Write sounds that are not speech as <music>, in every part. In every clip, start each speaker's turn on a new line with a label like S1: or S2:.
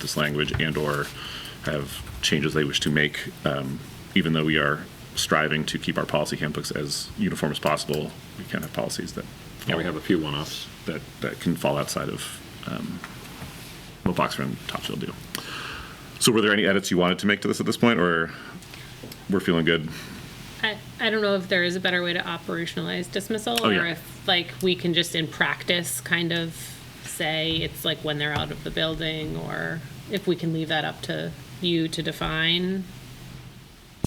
S1: this language and/or have changes they wish to make, um, even though we are striving to keep our policy handbooks as uniform as possible, we can have policies that,
S2: Yeah, we have a few one-offs.
S1: that, that can fall outside of um, what Boxer and Topsfield do. So were there any edits you wanted to make to this at this point, or we're feeling good?
S3: I, I don't know if there is a better way to operationalize dismissal
S1: Oh,
S3: or
S1: yeah.
S3: if like we can just in practice kind of say it's like when they're out of the building or if we can leave that up to you to define.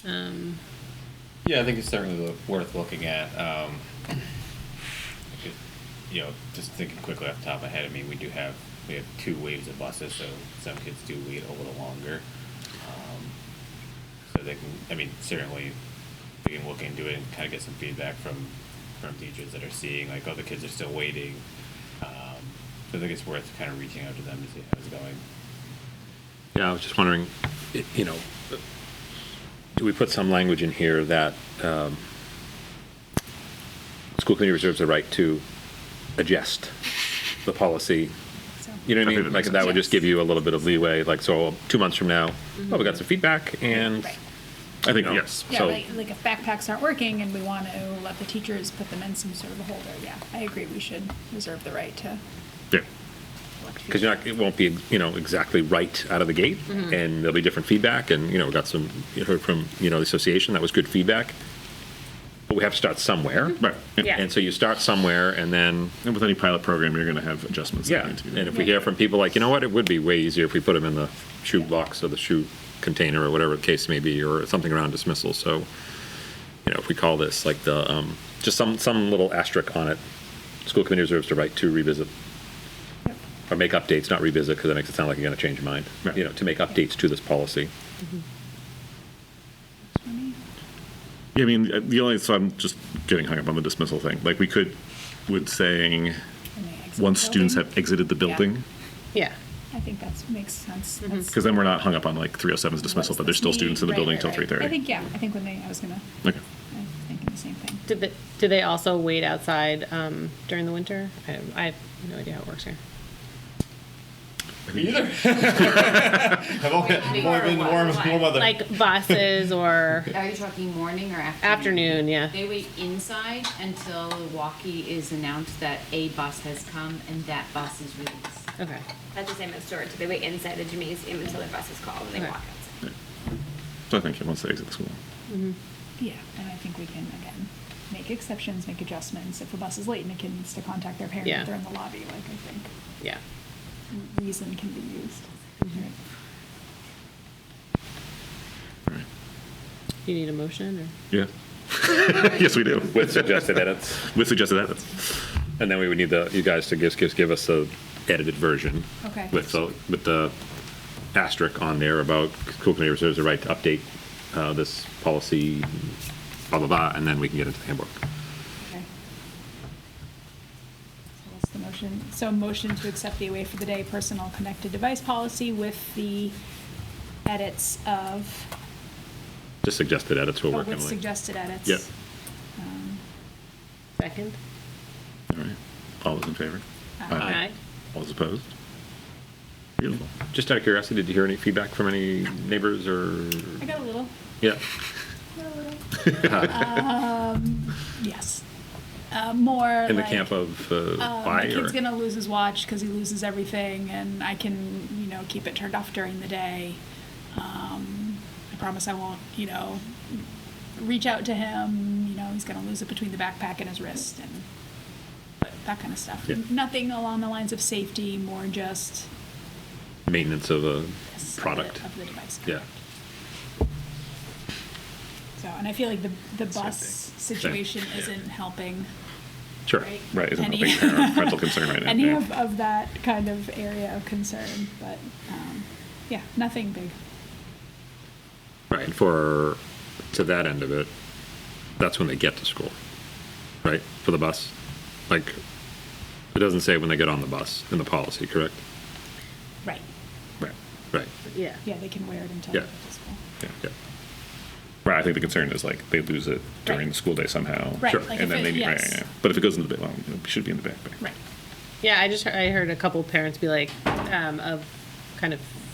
S4: Yeah, I think it's certainly lo- worth looking at. Um, I could- you know, just thinking quickly off the top of my head, I mean, we do have we have two waves of buses, so some kids do wait a little longer. Um, so they can, I mean, certainly we can look into it and kind of get some feedback from from teachers that are seeing like, oh, the kids are still waiting. Um, so I think it's worth kind of reaching out to them to see how it's going.
S2: Yeah, I was just wondering, i- you know, do we put some language in here that um, school committee reserves the right to adjust the policy? You know what
S1: I think
S2: I mean?
S1: that
S2: Like,
S1: makes
S2: that
S1: sense.
S2: would just give you a little bit of leeway, like, so two months from now, oh, we got some feedback and,
S5: Right.
S1: I think,
S2: No.
S1: yes.
S5: Yeah,
S2: So-
S5: like, like if backpacks aren't working and we want to let the teachers put them in some sort of a holder, yeah, I agree, we should reserve the right to.
S1: Yeah.
S2: because you're not, it won't be, you know, exactly right out of the gate, and there'll be different feedback, and, you know, we got some, you heard from, you know, the association, that was good feedback. But we have to start somewhere.
S1: Right. And-
S3: Yeah.
S2: And so you start somewhere, and then
S1: And with any pilot program, you're going to have adjustments. that
S2: Yeah,
S1: need to be
S2: and
S1: made.
S2: if we hear from people like, you know what, it would be way easier if we put them in the shoe box or the shoe container or whatever the case may be, or something around dismissal, so, you know, if we call this like the, um, just some, some little asterisk on it, school committee reserves the right to revisit,
S5: Yep.
S2: or make updates, not revisit, because that makes it sound like you're gonna change your mind,
S1: Right.
S2: you know, to make updates to this policy.
S1: Yeah, I mean, uh, the only, so I'm just getting hung up on the dismissal thing. Like, we could, with saying,
S5: when they exit the
S1: once students
S5: building.
S1: have exited the building,
S3: Yeah.
S5: I think that makes sense.
S3: Mm-hmm.
S5: That's-
S1: because then we're not hung up on like 307's
S5: what
S1: dismissal,
S5: does
S1: but there's
S5: this
S1: still
S5: mean?
S1: students in the
S5: Right,
S1: building
S5: right,
S1: until
S5: right.
S1: 3:30.
S5: I think, yeah, I think when they, I was gonna,
S1: Okay.
S5: I was thinking the same thing.
S3: Did they, do they also wait outside um, during the winter? I, I have no idea how it works here.
S4: Me either. I've only,
S6: Wait, only been warm- warm- warm
S4: weather.
S1: <laughs>
S3: Like buses or
S6: Are you talking morning or afternoon?
S3: afternoon, yeah.
S6: They wait inside until the walkie is announced that a bus has come and that bus is released.
S3: Okay.
S7: That's the same as storage. They wait inside the gymnasium until the bus is called and they
S3: Okay.
S7: walk outside.
S1: So I think, yeah, once they exit the school.
S5: Yeah, and I think we can, again, make exceptions, make adjustments. If a bus is late and the kid needs to contact their parent,
S3: Yeah.
S5: if they're in the lobby, like, I think
S3: Yeah.
S5: reason can be used.
S3: Mm-hmm.
S5: Right.
S1: All right.
S3: You need a motion or?
S1: Yeah. <laughs> Yes, we do.
S2: With suggested edits,
S1: With suggested edits.
S2: and then we would need the, you guys to give, give, give us the edited version.
S5: Okay.
S2: With the, with the asterisk on there about school committee reserves the right to update uh, this policy, blah, blah, blah, and then we can get into the handbook.
S5: Okay. So That's the motion. So a motion to accept the away for the day personal connected device policy with the edits of,
S2: Just suggested edits we're
S5: of
S2: working
S5: with
S2: with.
S5: suggested edits.
S1: Yep.
S5: Um,
S3: Second?
S1: All right. All those in favor?
S2: Uh,
S5: Aye.
S1: All those opposed? Beautiful.
S2: Just out of curiosity, did you hear any feedback from any neighbors or,
S5: I got a little,
S2: yeah?
S5: got <laughs> a
S2: <laughs>
S5: little, Um, yes. Uh, More
S2: In the
S5: like,
S2: camp of uh, why?
S5: uh, My
S2: or-
S5: kid's gonna lose his watch because he loses everything and I can, you know, keep it turned off during the day. Um, I promise I won't, you know, reach out to him, you know, he's gonna lose it between the backpack and his wrist and but that kind of stuff.
S2: Yeah.
S5: Nothing along the lines of safety, more just
S2: Maintenance of a
S5: yes, of the-
S2: product,
S5: of the device.
S2: yeah.
S5: So, and I feel like the, the
S2: Same
S5: bus
S2: thing.
S5: situation isn't helping,
S2: Sure.
S5: right?
S1: Right, isn't a
S5: Any-
S1: big
S5: <laughs>
S1: parental concern right now.
S5: any
S1: yeah.
S5: of, of that kind of area of concern, but um, yeah, nothing big.
S2: Right, and for, to that end of it, that's when they get to school, right, for the bus? Like, it doesn't say when they get on the bus in the policy, correct?
S5: Right.
S1: Right.
S2: Right,
S3: Yeah.
S5: Yeah, they can wear it until
S2: Yeah.
S5: they go to school.
S1: Yeah.
S2: yeah.
S1: Right, I think the concern is like they lose it during
S5: Right.
S1: the school day somehow.
S5: Right,
S2: Sure.
S1: And
S5: like if
S1: then
S5: it-
S1: they, need- right,
S5: yes.
S1: yeah, yeah. But if it goes in the, ba- well, it should be in the backpack.
S5: Right.
S3: Yeah, I just heard, I heard a couple parents be like, um, of kind of